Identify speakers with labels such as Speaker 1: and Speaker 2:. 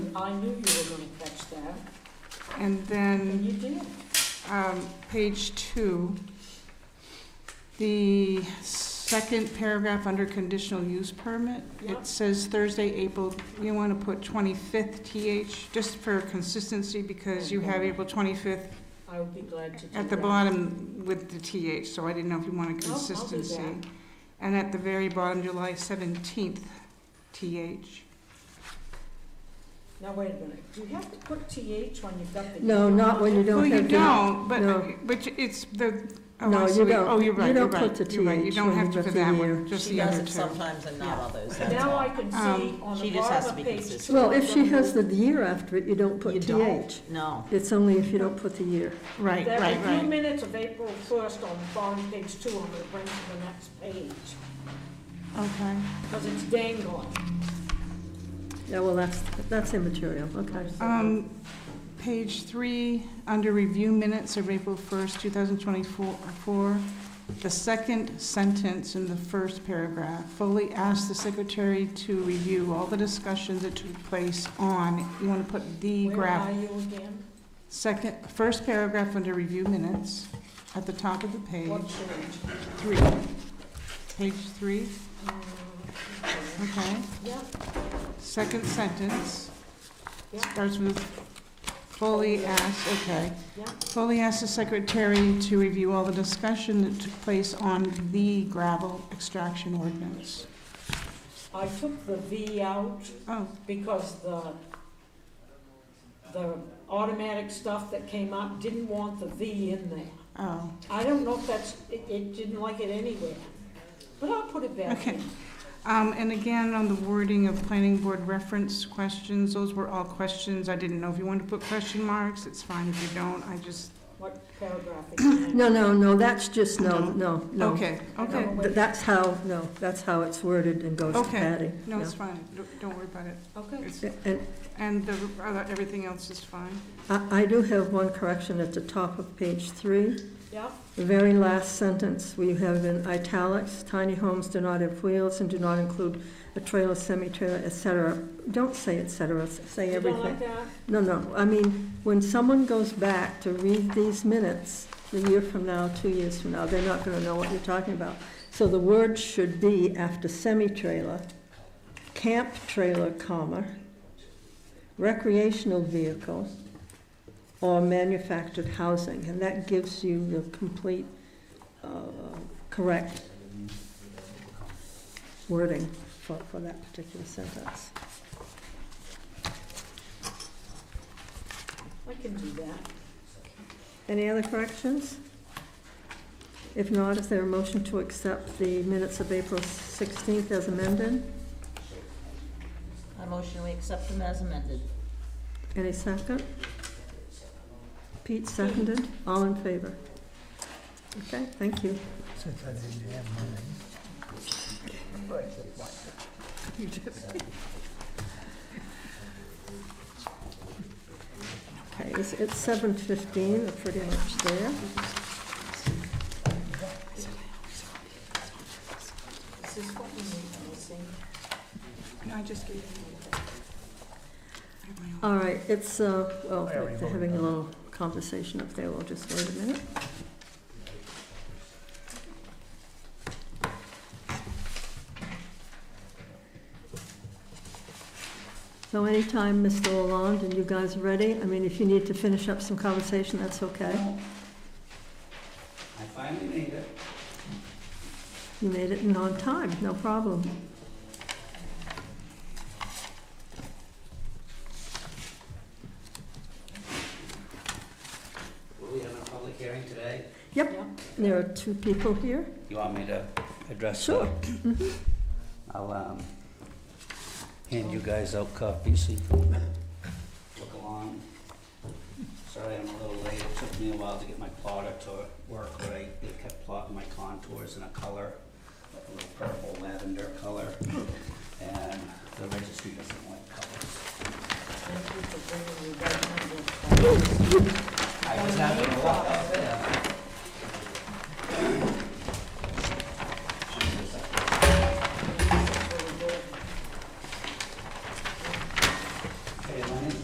Speaker 1: and I knew you were gonna catch that,
Speaker 2: And then,
Speaker 1: and you did.
Speaker 2: um, page two, the second paragraph under conditional use permit,
Speaker 1: Yeah.
Speaker 2: it says Thursday, April, you want to put 25th TH, just for consistency, because you have April 25th
Speaker 1: I would be glad to do that.
Speaker 2: at the bottom with the TH, so I didn't know if you wanted
Speaker 1: No, Oh, I'll do
Speaker 2: consistency.
Speaker 1: that.
Speaker 2: And at the very bottom, July 17th TH.
Speaker 1: Now, wait a minute, do you have to put TH when you've got the?
Speaker 3: No, not when you
Speaker 2: Well,
Speaker 3: don't
Speaker 2: you
Speaker 3: have the...
Speaker 2: don't,
Speaker 3: no.
Speaker 2: but, but it's the, oh,
Speaker 3: No,
Speaker 2: I
Speaker 3: you
Speaker 2: see, what you-
Speaker 3: don't.
Speaker 2: oh, you're
Speaker 3: You
Speaker 2: right, you're
Speaker 3: don't put
Speaker 2: right,
Speaker 3: the
Speaker 2: you're right, you
Speaker 3: TH
Speaker 2: don't
Speaker 3: when
Speaker 2: have
Speaker 3: you've
Speaker 2: to
Speaker 3: got
Speaker 2: for
Speaker 3: the
Speaker 2: that
Speaker 3: year.
Speaker 2: one, just
Speaker 4: She
Speaker 2: the
Speaker 4: does
Speaker 2: other
Speaker 4: it
Speaker 2: two.
Speaker 4: sometimes and not
Speaker 2: Yeah.
Speaker 4: others, that's
Speaker 1: Now I
Speaker 4: all.
Speaker 1: can see
Speaker 2: Um,
Speaker 1: on the
Speaker 4: She just
Speaker 1: bottom
Speaker 4: has to
Speaker 1: of
Speaker 4: be
Speaker 1: page two.
Speaker 4: consistent.
Speaker 3: Well, if she has the year after it, you don't
Speaker 4: You
Speaker 3: put
Speaker 4: don't?
Speaker 3: TH.
Speaker 4: No.
Speaker 3: It's only if you don't put the year.
Speaker 2: Right,
Speaker 1: There
Speaker 2: right,
Speaker 1: are a few
Speaker 2: right.
Speaker 1: minutes of April first on the bottom of page two, I'm gonna bring to the next page,
Speaker 2: Okay,
Speaker 1: because it's dangling.
Speaker 3: Yeah, well, that's, that's immaterial, okay.
Speaker 2: um, page three, under review minutes of April first, two thousand twenty-four, four, the second sentence in the first paragraph, fully asked the secretary to review all the discussions that took place on, you wanna put the
Speaker 1: Where
Speaker 2: graph
Speaker 1: are you again?
Speaker 2: Second, first paragraph under review minutes, at the top of the
Speaker 1: What
Speaker 2: page,
Speaker 1: page?
Speaker 2: three. Page three,
Speaker 1: Uh, okay.
Speaker 2: okay.
Speaker 1: Yeah,
Speaker 2: Second sentence,
Speaker 1: yeah,
Speaker 2: starts with fully asked, okay.
Speaker 1: yeah.
Speaker 2: Fully asked the secretary to review all the discussion that took place on the gravel extraction ordinance.
Speaker 1: I took the V out
Speaker 2: Oh,
Speaker 1: because the, the automatic stuff that came up didn't want the V in there.
Speaker 2: oh,
Speaker 1: I don't know if that's, it, it didn't like it anywhere, but I'll put it back
Speaker 2: okay.
Speaker 1: in.
Speaker 2: Um, and again, on the wording of planning board reference questions, those were all questions. I didn't know if you wanted to put question marks, it's fine if you don't, I just
Speaker 1: What paragraph is that?
Speaker 3: No, no, no, that's just, no, no, no.
Speaker 2: Mm-hmm. Okay, okay,
Speaker 1: No.
Speaker 3: Th- That's how, no, that's how it's worded and goes to
Speaker 2: Okay.
Speaker 3: Patty.
Speaker 2: no,
Speaker 3: yeah.
Speaker 2: it's fine, Don't- don't worry about it.
Speaker 1: Okay,
Speaker 2: It's-
Speaker 3: And
Speaker 2: And the, other- everything else is fine.
Speaker 3: I, I do have one correction at the top of page three.
Speaker 1: yeah,
Speaker 3: The very last sentence, we have in italics, tiny homes do not have wheels and do not include a trailer, semi-trailer, et cetera. Don't say et cetera, s- say
Speaker 1: you don't
Speaker 3: everything.
Speaker 1: like that?
Speaker 3: No, no, I mean, when someone goes back to read these minutes, a year from now, two years from now, they're not gonna know what you're talking about. So the word should be after semi-trailer, camp trailer, comma, recreational vehicle, or manufactured housing, and that gives you the complete, uh, correct wording for, for that particular sentence.
Speaker 1: I can do that.
Speaker 3: Any other corrections? If not, is there a motion to accept the minutes of April 16th as amended?
Speaker 4: I motion we accept them as amended.
Speaker 3: Any second? Pete seconded, all in favor? Okay, thank you.
Speaker 5: Since I didn't have mine.
Speaker 3: Okay, it's, it's 7:15, we're pretty much there.
Speaker 1: Is this what we need missing?
Speaker 2: No, I just gave you. I have my own.
Speaker 3: All right, it's, uh, well,
Speaker 5: I already
Speaker 3: they're having a
Speaker 5: voted.
Speaker 3: little conversation up there, we'll just wait a minute. So anytime, Mr. Lalonde, and you guys are ready, I mean, if you need to finish up some conversation, that's okay.
Speaker 6: I finally made it.
Speaker 3: You made it in on time, no problem.
Speaker 6: Were we having a public hearing today?
Speaker 1: Yeah.
Speaker 3: There are two people here.
Speaker 6: You want me to address?
Speaker 3: Sure.
Speaker 6: that? Mm-hmm. I'll, um, hand you guys out copies so you can look along. Sorry I'm a little late. It took me a while to get my plotter to work right. It kept plotting my contours in a color, like a little purple lavender color. And the registry doesn't like colors.
Speaker 1: Thank you for bringing me that number.
Speaker 6: I was having a lot of